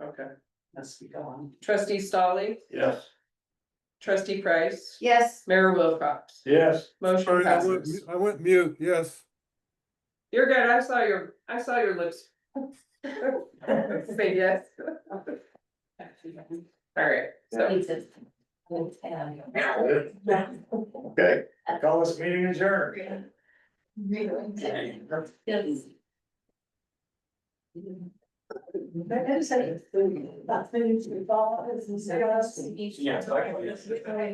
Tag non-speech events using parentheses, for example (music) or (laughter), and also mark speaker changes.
Speaker 1: Okay.
Speaker 2: Must be gone. Trustee Stolly,
Speaker 1: Yes.
Speaker 2: trustee Price,
Speaker 3: Yes,
Speaker 2: Mayor Wilcox,
Speaker 1: Yes.
Speaker 2: motion
Speaker 4: Sorry, I went,
Speaker 2: passes.
Speaker 4: I went mute, yes.
Speaker 2: You're good, I saw your, I saw your lips. (laughs) Say yes. (laughs) All right, so
Speaker 3: me too.
Speaker 1: Okay, call this meeting adjourned.
Speaker 3: Yes.
Speaker 5: That's maybe to the ball, is
Speaker 3: Yes,
Speaker 1: I can-